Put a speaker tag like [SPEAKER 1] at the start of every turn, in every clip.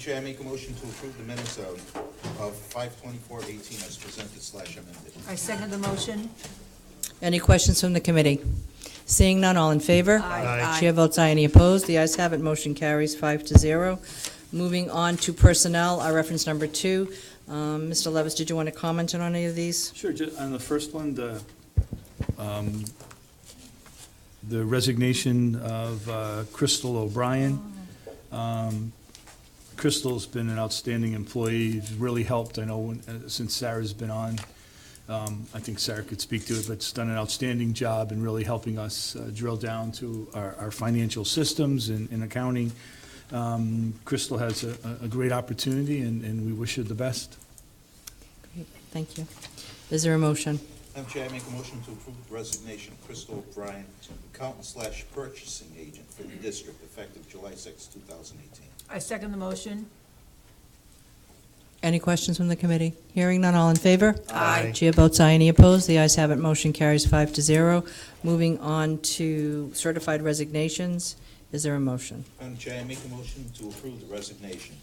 [SPEAKER 1] Chair, I make a motion to approve the minutes of, of five twenty-four eighteen as presented slash amended.
[SPEAKER 2] I second the motion.
[SPEAKER 3] Any questions from the committee? Seeing none, all in favor?
[SPEAKER 2] Aye. Aye.
[SPEAKER 3] Chair votes aye, any opposed? The ayes have it, motion carries five to zero. Moving on to personnel, our reference number two. Um, Mr. Levis, did you want to comment on any of these?
[SPEAKER 4] Sure, ju- on the first one, the, um, the resignation of uh, Crystal O'Brien. Um, Crystal's been an outstanding employee, She's really helped, I know, when- uh, since Sarah's been on. Um, I think Sarah could speak to it, but she's done an outstanding job in really helping us uh, drill down to our, our financial systems and and accounting. Um, Crystal has a, a- a great opportunity, and, and we wish her the best.
[SPEAKER 3] Great, Thank you. Is there a motion?
[SPEAKER 1] Madam Chair, I make a motion to approve the resignation of Crystal O'Brien, accountant slash purchasing agent for the district effective July sixth, two thousand eighteen.
[SPEAKER 2] I second the motion.
[SPEAKER 3] Any questions from the committee? Hearing none, all in favor?
[SPEAKER 2] Aye.
[SPEAKER 3] Chair votes aye, any opposed? The ayes have it, motion carries five to zero. Moving on to certified resignations, is there a motion?
[SPEAKER 1] Madam Chair, I make a motion to approve the resignation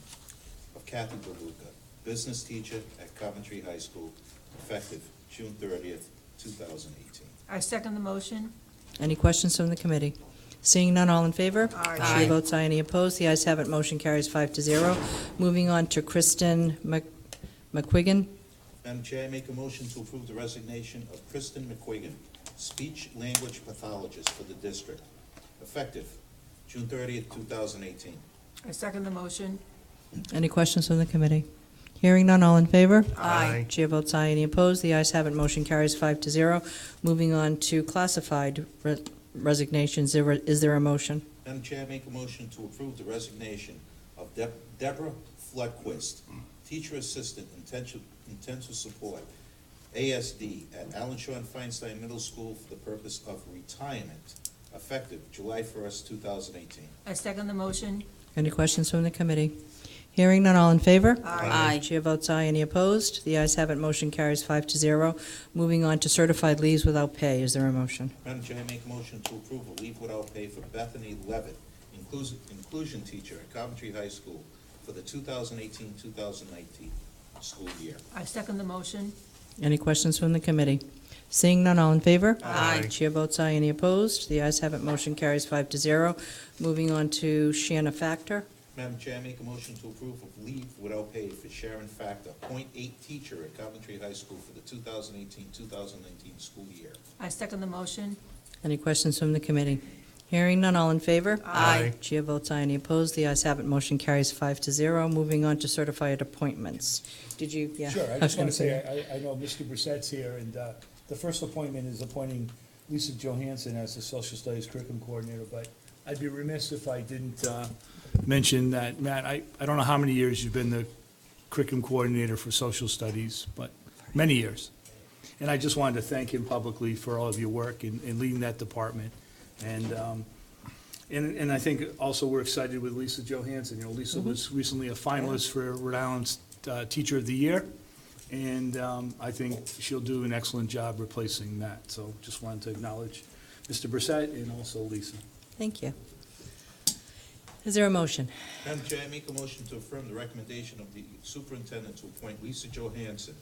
[SPEAKER 1] of Kathy DeLuca, business teacher at Coventry High School, effective June thirtieth, two thousand eighteen.
[SPEAKER 2] I second the motion.
[SPEAKER 3] Any questions from the committee? Seeing none, all in favor?
[SPEAKER 2] Aye.
[SPEAKER 3] Chair votes aye, any opposed? The ayes have it, motion carries five to zero. Moving on to Kristen Mc- McQuiggin.
[SPEAKER 1] Madam Chair, I make a motion to approve the resignation of Kristen McQuiggin, speech language pathologist for the district, effective June thirtieth, two thousand eighteen.
[SPEAKER 2] I second the motion.
[SPEAKER 3] Any questions from the committee? Hearing none, all in favor?
[SPEAKER 2] Aye.
[SPEAKER 3] Chair votes aye, any opposed? The ayes have it, motion carries five to zero. Moving on to classified re- resignations, There were- is there a motion?
[SPEAKER 1] Madam Chair, I make a motion to approve the resignation of Deb- Deborah Floodquist, teacher assistant intensive, intensive support, ASD, at Allen Shawn Feinstein Middle School for the purpose of retirement, effective July first, two thousand eighteen.
[SPEAKER 2] I second the motion.
[SPEAKER 3] Any questions from the committee? Hearing none, all in favor?
[SPEAKER 2] Aye.
[SPEAKER 3] Chair votes aye, any opposed? The ayes have it, motion carries five to zero. Moving on to certified leaves without pay, is there a motion?
[SPEAKER 1] Madam Chair, I make a motion to approve a leave without pay for Bethany Levitt, inclusion, inclusion teacher at Coventry High School for the 2018-2019 school year.
[SPEAKER 2] I second the motion.
[SPEAKER 3] Any questions from the committee? Seeing none, all in favor?
[SPEAKER 2] Aye.
[SPEAKER 3] Chair votes aye, any opposed? The ayes have it, motion carries five to zero. Moving on to Shanna Factor.
[SPEAKER 1] Madam Chair, I make a motion to approve of leave without pay for Sharon Factor, 0.8 teacher at Coventry High School for the 2018-2019 school year.
[SPEAKER 2] I second the motion.
[SPEAKER 3] Any questions from the committee? Hearing none, all in favor?
[SPEAKER 2] Aye.
[SPEAKER 3] Chair votes aye, any opposed? The ayes have it, motion carries five to zero. Moving on to certified appointments. Did you, yeah?
[SPEAKER 5] Sure,
[SPEAKER 3] was
[SPEAKER 5] I just want
[SPEAKER 3] gonna
[SPEAKER 5] to say, I, I know Mr. Brissette's here, and uh, the first appointment is appointing Lisa Johansson as the social studies curriculum coordinator, but I'd be remiss if I didn't uh, mention that, Matt, I, I don't know how many years you've been the curriculum coordinator for social studies, but many years. And I just wanted to thank him publicly for all of your work in, in leading that department. And, um, and, and I think also we're excited with Lisa Johansson. You know, Lisa was recently a finalist for Rhode Island's uh, Teacher of the Year. And um, I think she'll do an excellent job replacing Matt. So just wanted to acknowledge Mr. Brissette and also Lisa.
[SPEAKER 3] Thank you. Is there a motion?
[SPEAKER 1] Madam Chair, I make a motion to affirm the recommendation of the superintendent to appoint Lisa Johansson,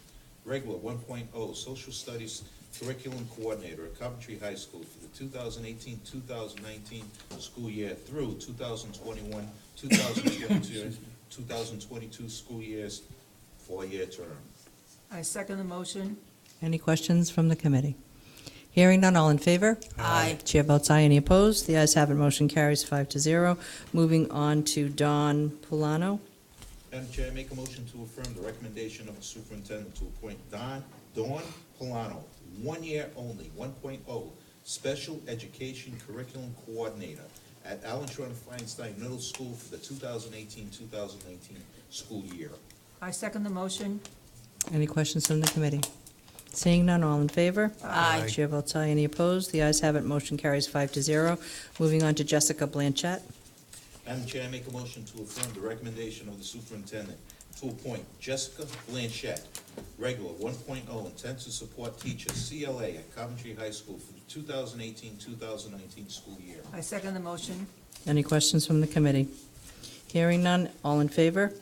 [SPEAKER 1] regular 1.0 social studies curriculum coordinator at Coventry High School for the 2018-2019 school year through 2021, 2022, 2022 school years, four-year term.
[SPEAKER 2] I second the motion.
[SPEAKER 3] Any questions from the committee? Hearing none, all in favor? Aye. Chair votes aye, any opposed? The ayes have it, motion carries five to zero. Moving on to Don Polano.
[SPEAKER 1] Madam Chair, I make a motion to affirm the recommendation of the superintendent to appoint Don, Dawn Polano, one year only, one oh, special education curriculum coordinator at Allen Shore Feinstein Middle School for the 2018-2019 school year.
[SPEAKER 2] I second the motion.
[SPEAKER 3] Any questions from the committee? Seeing none, all in favor? Aye. Chair votes aye, any opposed? The ayes have it, motion carries five to zero. Moving on to Jessica Blanchett.
[SPEAKER 1] Madam Chair, I make a motion to affirm the recommendation of the superintendent to appoint Jessica Blanchett, regular 1.0 intensive support teacher, CLA at Coventry High School for the 2018-2019 school year.
[SPEAKER 2] I second the motion.
[SPEAKER 3] Any questions from the committee? Hearing none, all in favor?